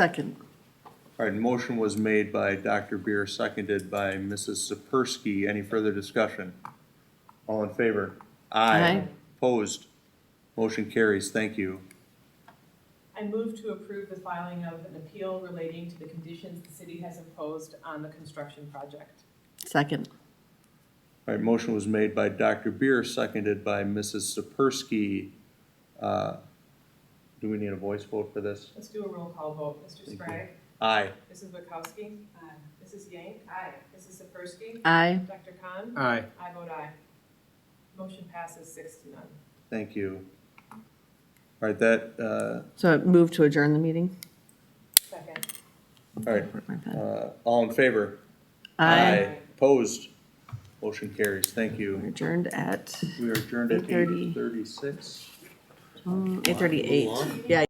Second. All right, motion was made by Dr. Beer, seconded by Mrs. Sapersky. Any further discussion? All in favor? Aye. Opposed? Motion carries. Thank you. I move to approve the filing of an appeal relating to the conditions the city has imposed on the construction project. Second. All right, motion was made by Dr. Beer, seconded by Mrs. Sapersky. Uh, Do we need a voice vote for this? Let's do a roll call vote. Mr. Thank you. Sprague? Aye. Mrs. Wackowski? Aye. Mrs. Yank? Aye. Mrs. Sapersky? Aye. Dr. Khan? Aye. I vote aye. Motion passes six to none. Thank you. All right, that, uh, So move to adjourn the meeting? Second. all right, Where'd my pen? uh, all in favor? Aye. Opposed? Motion carries. Thank you. We're Adjourned at We are adjourned at eight 8:30. thirty-six. eight um, thirty-eight. Yeah,